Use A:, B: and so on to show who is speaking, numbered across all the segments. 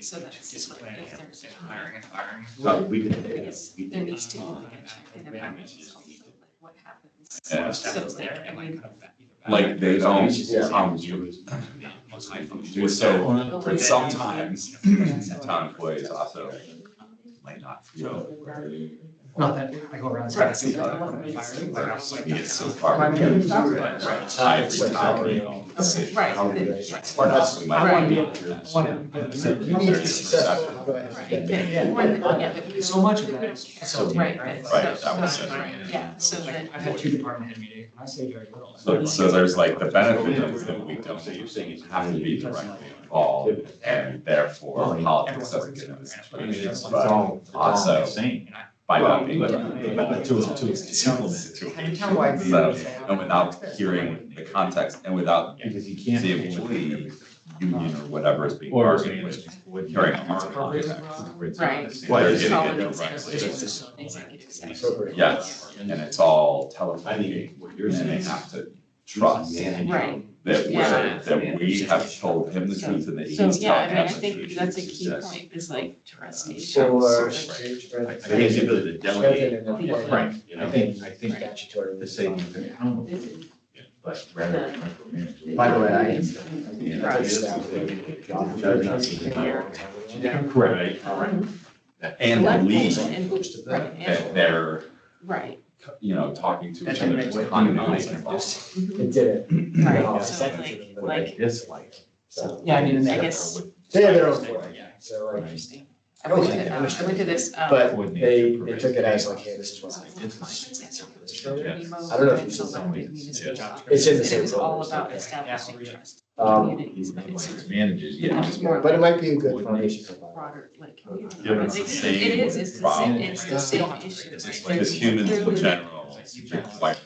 A: So that's
B: Is
A: like
B: planning
A: if there's a
B: and
A: time.
B: hiring and firing.
C: So we did.
A: Yes,
C: we
A: there
C: did.
A: needs to be like a check in about also, like what happens. So it's like, I mean,
C: Like they don't,
D: Yeah.
C: um, you,
B: Most high
C: do
B: functions.
C: so,
A: the way
C: but
A: that-
C: sometimes town employees also might not feel very.
D: Not that I go around.
A: Right.
D: saying,
A: Yeah.
D: "Oh, I'm fired," but I was like,
C: It's so
D: "Yeah."
C: far.
D: My manager's
C: removed.
D: not
C: Right,
D: right.
C: right. I every time, you know, it's-
A: Right.
C: how do they-
A: Right.
C: Or that's we might
D: Right.
C: want to be-
D: Whatever.
C: So
D: You need to be
C: there's
D: successful.
C: perception.
D: Go ahead.
A: Right,
D: Yeah.
A: that-
D: Yeah.
A: one, yeah, that we
D: So much of that
A: don't- we
D: is
A: don't care.
D: facilitated,
A: Right,
D: right?
A: but
C: Right,
A: so-
C: that was
A: so-
C: it.
A: right, Yeah, so
D: Like,
A: that,
D: I've had two department head meetings, and I say very little.
C: So, so there's like the benefit is that we don't have to be directly involved and therefore politics doesn't get in this situation. But also by not being.
D: But
E: to- to- to
C: implement.
D: And tell why.
C: So, and without hearing the context and without
E: Because you can't.
C: seeing what the union or whatever is being
E: Or
C: argued with.
E: what you-
C: Carrying our context.
A: right.
C: Why
A: Well,
C: they're
A: it's
C: getting
A: all
C: it
A: in
C: right.
A: executive- executive session.
D: Appropriate.
C: Yes, and it's all
E: I
C: telephonic.
E: think what you're
C: And they
E: saying.
C: have to trust that
A: Right,
C: we're,
A: Yeah.
C: that we have told him the truth and that he's
A: so,
C: telling
A: yeah, I mean, I
C: us the truth.
A: think that's a key
C: Yes.
A: point, is like trustees.
F: uh,
D: Or.
E: I think it's ability to delegate.
A: Right.
E: You
D: I
E: know,
D: think, I think statutory.
E: to say that they're accountable,
A: This is-
E: but rather than micromanage.
D: By the way, I-
A: It's-
E: Yeah,
A: Right.
E: that's what they're doing.
D: Yeah.
E: Correct.
C: And
A: Right.
C: believe
A: And believe, right,
C: that
A: and-
C: they're,
A: Right.
C: you know, talking to each
D: That's
C: other.
D: what makes it
C: unbiased.
A: mhm,
F: It did it.
A: Right, so like,
E: What they
A: like,
E: dislike.
F: So
D: Yeah, I mean, and
A: Mm-hmm. I
D: they.
A: guess,
E: Oh,
F: they have their own board. So like,
A: interesting. I went to, um, I went to this, um.
F: but they, they took it as like, hey, this is what I
A: What is that sort of
F: Yeah.
A: remote
F: I don't know if
A: and
F: you saw
A: so
F: that.
A: on with municipal office?
F: It's in the
A: And It
F: same
A: was all
F: folder. so-
A: about establishing trust,
F: Um,
A: community, right, so it's
E: Manages, yeah.
A: much more
F: but it
A: like
F: might be a good foundation for that.
A: broader, like. community.
C: Yeah, but it's the
A: It
C: same
A: is, it's the same,
C: problem.
A: it's the same issue, right?
C: Because humans in general, are quite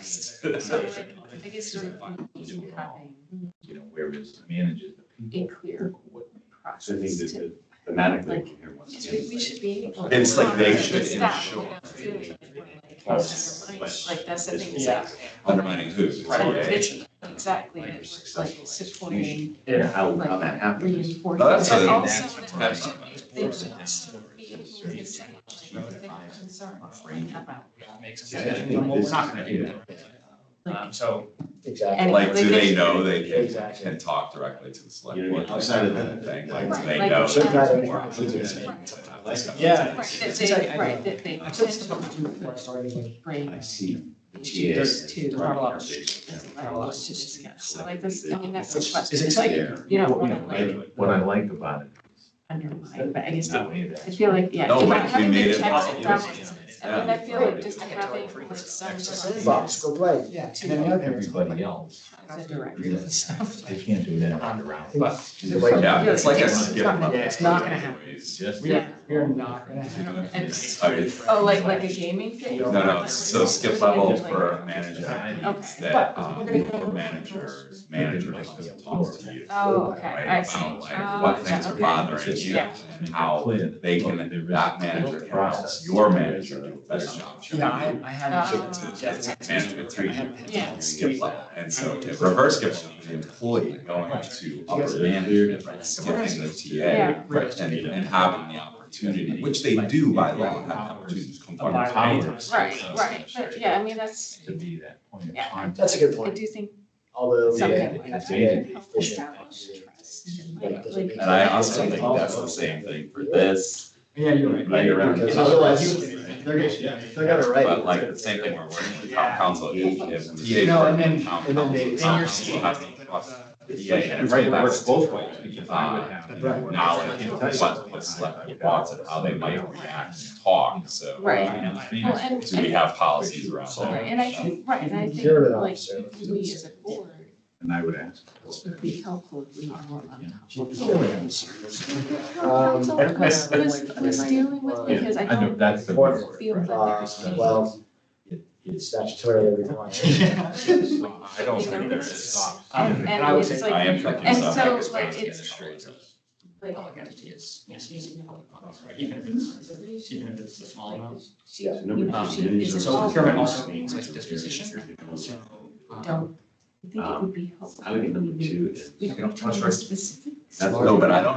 A: So
C: right.
A: like, I guess sort of you having
E: You know, whereas manages the
A: a
E: people.
A: clear
E: What-
A: process to,
C: Thematically.
A: because we, we should be able. to
C: It's like they
A: monitor
C: should
A: staff,
C: ensure-
A: like,
C: Yes.
A: Like, that's the thing, it's
D: Yeah.
A: like,
C: Undermining who?
D: Right.
C: Yeah.
A: it's exactly, it's like supporting,
E: Yeah, how, how that happens.
A: reinforcing.
C: No, that's
A: but
C: a-
A: also that
C: that's a-
A: They should also be able to say, like, they have concerns about.
D: Makes
E: Yeah,
D: sense.
E: I think
D: Well,
E: this
D: we're not
E: is-
D: gonna do that. Um, so.
F: Exactly.
A: Anyway,
C: Like, do they know they can,
F: Exactly.
C: can talk directly to the select
E: You know what I
C: board?
E: mean? Outside of
C: that
E: that.
C: Thing, like, do
A: Right,
C: they
A: like-
C: know.
F: Should
C: that
F: not
C: it's more
F: include
C: inclusive
F: this.
C: than to have this
E: Like,
D: yeah.
A: Right, that
D: It's like,
A: they,
D: I-
A: right, that they
D: I took stuff up to
A: potentially
D: before I started, like,
A: bring
E: I see.
A: issues to the
D: Right.
A: board to discuss. So like this, I mean, that's a
D: It's
A: question, it's like
D: exciting.
E: Yeah.
A: you don't
E: What-
A: wanna,
E: you know,
A: like-
E: I- What I like about it.
A: undermined, but I guess.
E: Not only that.
A: I feel like, yeah.
C: No,
A: if
C: but
A: I'm
C: we
A: having
C: made
A: the
C: it
A: checks
C: possible.
A: and balances, I mean, I feel like just having like some sort of
F: Box, go play.
D: Yeah. And then the other thing is,
E: Everybody else,
A: as a director and stuff.
E: they can't do that on the round.
D: But
C: like- Yeah, it's like a skip.
D: Yeah, it's not gonna happen.
C: It's
E: Just.
D: we are, we are not gonna have.
A: And-
C: I mean,
A: Oh, like, like a gaming thing?
C: No, no, so skip level for manager,
A: Okay.
C: that, um, for managers, manager doesn't talk to you.
A: Oh, okay, I
C: Right,
A: see.
C: about like
A: Oh,
C: what things are
A: okay.
C: bothering you
A: Yeah.
C: and how they can, that manager can help your manager do a better job.
D: Yeah, I, I
A: Um,
D: had.
C: To- to Management three,
A: Yeah.
C: skip level, and so if reverse skip level, the employee going to upper management, right, skipping the TA.
A: Yeah.
C: right, And, and having the opportunity, which they do by law, have the opportunity to come
D: By
C: talk.
D: law.
A: Right, right, but yeah, I mean, that's,
E: To be that point of
A: Yeah.
E: contact.
F: That's a good
A: I
F: point.
A: do think
F: Although.
A: something like
F: yeah,
A: that
F: yeah,
A: can help establish trust and like, like.
C: And I also think that's the same thing for this,
D: Yeah, you're right.
C: right around.
F: Because otherwise, they're
D: gonna-
F: gonna, they're gonna write.
C: But like the same thing we're working with town
D: Yeah.
C: council, if, if the TA.
D: No, and
C: working with
D: then-
C: town
F: and then
C: council,
F: they- and
C: town
F: you're
C: council
F: seeing-
C: has to trust the TA, and
E: And
C: it's
E: right, it
C: about
E: works both ways, because I would
C: uh,
E: have.
F: right.
C: knowledge of what, what select wants and how they might react, and talk, so.
A: Right. Well, and,
C: Do we
A: and,
C: have policies around
A: right,
C: that?
A: and I think, right, and I think
F: Sure enough,
A: like,
F: so-
A: we as a board
E: And I would ask.
A: would be helpful if we were more on top of
F: Yeah.
A: Council was, was, was dealing with, because I
E: I know,
A: don't
E: that's the.
F: Or-
A: feel that
F: Uh,
A: there's any.
F: well, statutorily required.
C: I don't think there is.
A: And,
D: I
A: and
D: would say-
A: it's
C: I
A: like,
C: am from
A: And
C: South
A: so,
C: Africa,
A: like,
C: so
A: it's-
C: straight.
A: like,
D: Even if it's, even if it's the small amounts.
A: she, you know, she is
D: So
A: involved.
D: procurement also means like disposition. So. um,
A: Don't, I think it would be helpful.
E: I would get number two is.
A: We don't
E: trust
A: trust specific.
C: No, but I don't